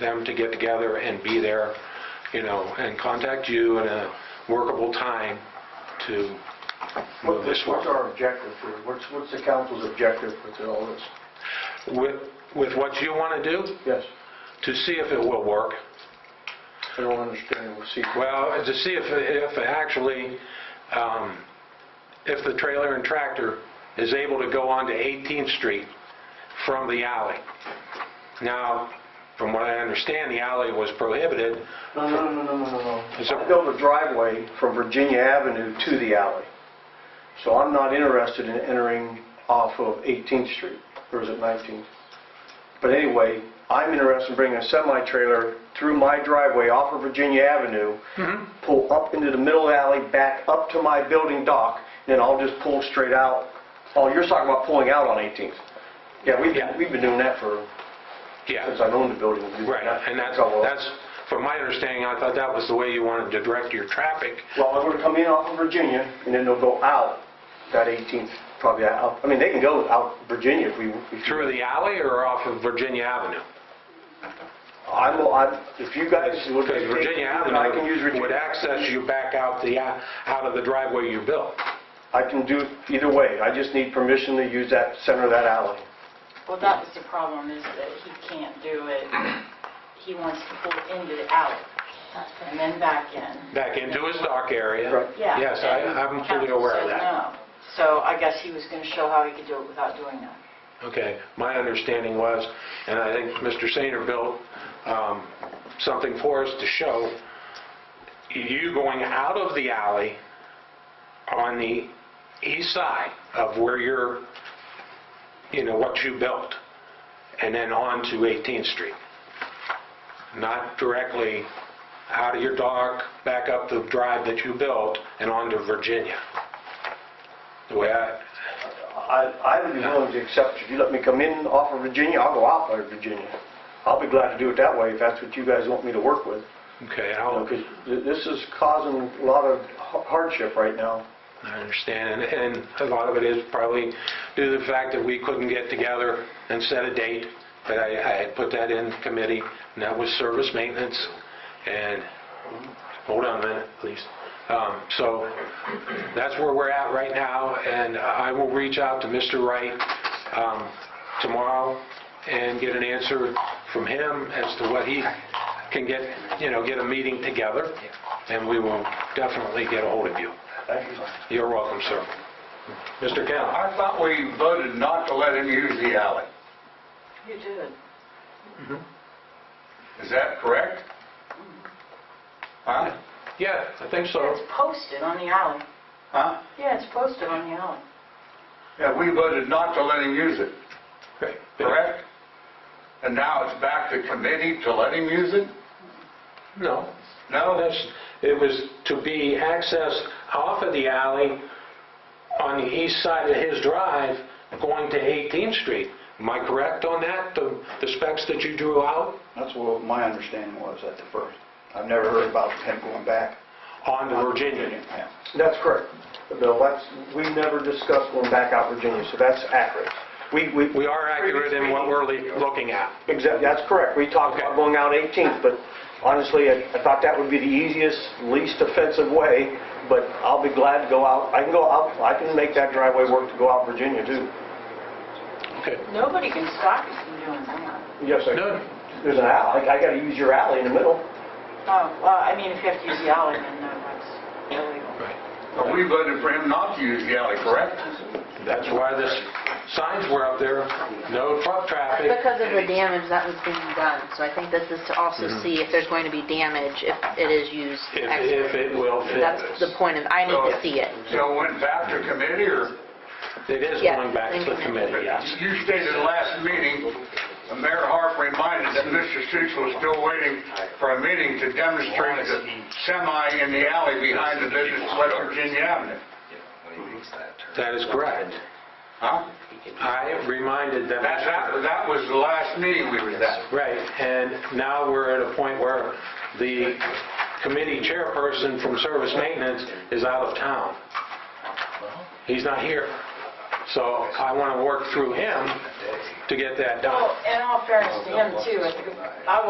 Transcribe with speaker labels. Speaker 1: them to get together and be there, you know, and contact you in a workable time to move this forward.
Speaker 2: What's our objective here? What's, what's the council's objective with all this?
Speaker 1: With, with what you want to do,
Speaker 2: Yes,
Speaker 1: to see if it will work.
Speaker 2: I don't understand what secret.
Speaker 1: Well, to see if, if actually, um, if the trailer and tractor is able to go onto 18th Street from the alley. Now, from what I understand, the alley was prohibited.
Speaker 2: No, no, no, no, no, no,
Speaker 1: Is it-
Speaker 2: no. I built a driveway from Virginia Avenue to the alley, so I'm not interested in entering off of 18th Street, or is it 19th? But anyway, I'm interested in bringing a semi-trailer through my driveway off of Virginia Avenue,
Speaker 1: Mm-hmm.
Speaker 2: pull up into the middle alley, back up to my building dock, and then I'll just pull straight out. Oh, you're talking about pulling out on 18th? Yeah, we've,
Speaker 1: Yeah.
Speaker 2: we've been doing that for, since
Speaker 1: Yeah,
Speaker 2: I've owned the building. we've been doing
Speaker 1: right,
Speaker 2: that.
Speaker 1: and that's,
Speaker 2: So, uh,
Speaker 1: that's, from my understanding, I thought that was the way you wanted to direct your traffic.
Speaker 2: Well, they're going to come in off of Virginia, and then they'll go out that 18th, probably out, I mean, they can go out Virginia if we... if you-
Speaker 1: Through the alley or off of Virginia Avenue?
Speaker 2: I'm, I'm- if you guys would...
Speaker 1: Because Virginia
Speaker 2: I can use
Speaker 1: Avenue would
Speaker 2: Virginia.
Speaker 1: access you back out the, a- out of the driveway you built.
Speaker 2: I can do either way, I just need permission to use that, center of that alley.
Speaker 3: Well, that was the problem, is that he can't do it, he wants to pull into the alley, and then back in.
Speaker 1: Back into his dock area.
Speaker 2: Right.
Speaker 3: Yeah.
Speaker 1: Yes, I- I'm fully aware of that.
Speaker 3: Council said no. So I guess he was going to show how he could do it without doing that.
Speaker 1: Okay, my understanding was, and I think Mr. Sainer built um, something for us to show, you going out of the alley on the east side of where you're, you know, what you built, and then on to 18th Street. Not directly out of your dock, back up the drive that you built, and on to Virginia. The way I,
Speaker 2: I, I would be willing to accept, if you let me come in off of Virginia, I'll go out by Virginia. I'll be glad to do it that way, if that's what you guys want me to work with.
Speaker 1: okay, I'll...
Speaker 2: Because this is causing a lot of hardship right now.
Speaker 1: I understand, and and a lot of it is probably due to the fact that we couldn't get together and set a date, but I I had put that in committee, and that was service maintenance, and, hold on a minute, please. Um, So that's where we're at right now, and I will reach out to Mr. Wright um, tomorrow and get an answer from him as to what he can get, you know, get a meeting together, and we will definitely get a hold of you.
Speaker 2: Thank you.
Speaker 1: You're welcome, sir. Mr. Kemp?
Speaker 4: I thought we voted not to let him use the alley.
Speaker 3: You did.
Speaker 4: Is that correct? Huh?
Speaker 1: Yeah, I think
Speaker 3: Yeah,
Speaker 1: so.
Speaker 3: it's posted on the alley.
Speaker 4: Huh?
Speaker 3: Yeah, it's posted on the alley.
Speaker 4: Yeah, we voted not to let him use it, correct? And now it's back to committee to let him use it?
Speaker 1: No,
Speaker 4: No?
Speaker 1: that's, it was to be accessed off of the alley on the east side of his drive going to 18th Street. Am I correct on that, the the specs that you drew out
Speaker 5: That's what my understanding was at the first. I've never heard about him going back.
Speaker 1: on the Virginia?
Speaker 5: Yeah.
Speaker 2: That's correct. Bill, that's, we never discussed going back out Virginia, so that's accurate. We, we,
Speaker 1: We are accurate in what we're le- looking at.
Speaker 2: exactly, that's correct. We talked about
Speaker 1: Okay.
Speaker 2: going out 18th, but honestly, I I thought that would be the easiest, least offensive way, but I'll be glad to go out, I can go out, I can make that driveway work to go out Virginia too.
Speaker 1: Okay.
Speaker 3: Nobody can stop you from doing that.
Speaker 2: Yes, I
Speaker 1: No.
Speaker 2: There's an alley, I gotta use your alley in the middle.
Speaker 3: Oh, well, I mean, if you have to use the alley, then no, that's illegal.
Speaker 1: Right.
Speaker 4: But we voted for him not to use the alley, correct?
Speaker 1: That's why the signs were up there, no truck traffic.
Speaker 6: Because of the damage that was being done, so I think this is to also see if there's going to be damage if it is used.
Speaker 1: Mm-hmm.
Speaker 6: ex-
Speaker 1: If- if it will fit
Speaker 6: That's
Speaker 1: this.
Speaker 6: the point, of I need to see it.
Speaker 4: So it went back to committee, or?
Speaker 1: It is
Speaker 6: Yeah,
Speaker 1: going back to the
Speaker 6: thank you.
Speaker 1: committee, yes.
Speaker 4: You stated last meeting, Mayor Harp reminded that Mr. Suits was still waiting for a meeting to demonstrate the semi in the alley behind the business at West Virginia Avenue.
Speaker 1: That is correct.
Speaker 4: Huh?
Speaker 1: I reminded them.
Speaker 4: That, that, that was the last meeting we was at.
Speaker 1: Right, and now we're at a point where the committee chairperson from service maintenance is out of town. He's not here. So I want to work through him to get that done.
Speaker 3: Oh, Well, in all fairness to him too, I think- I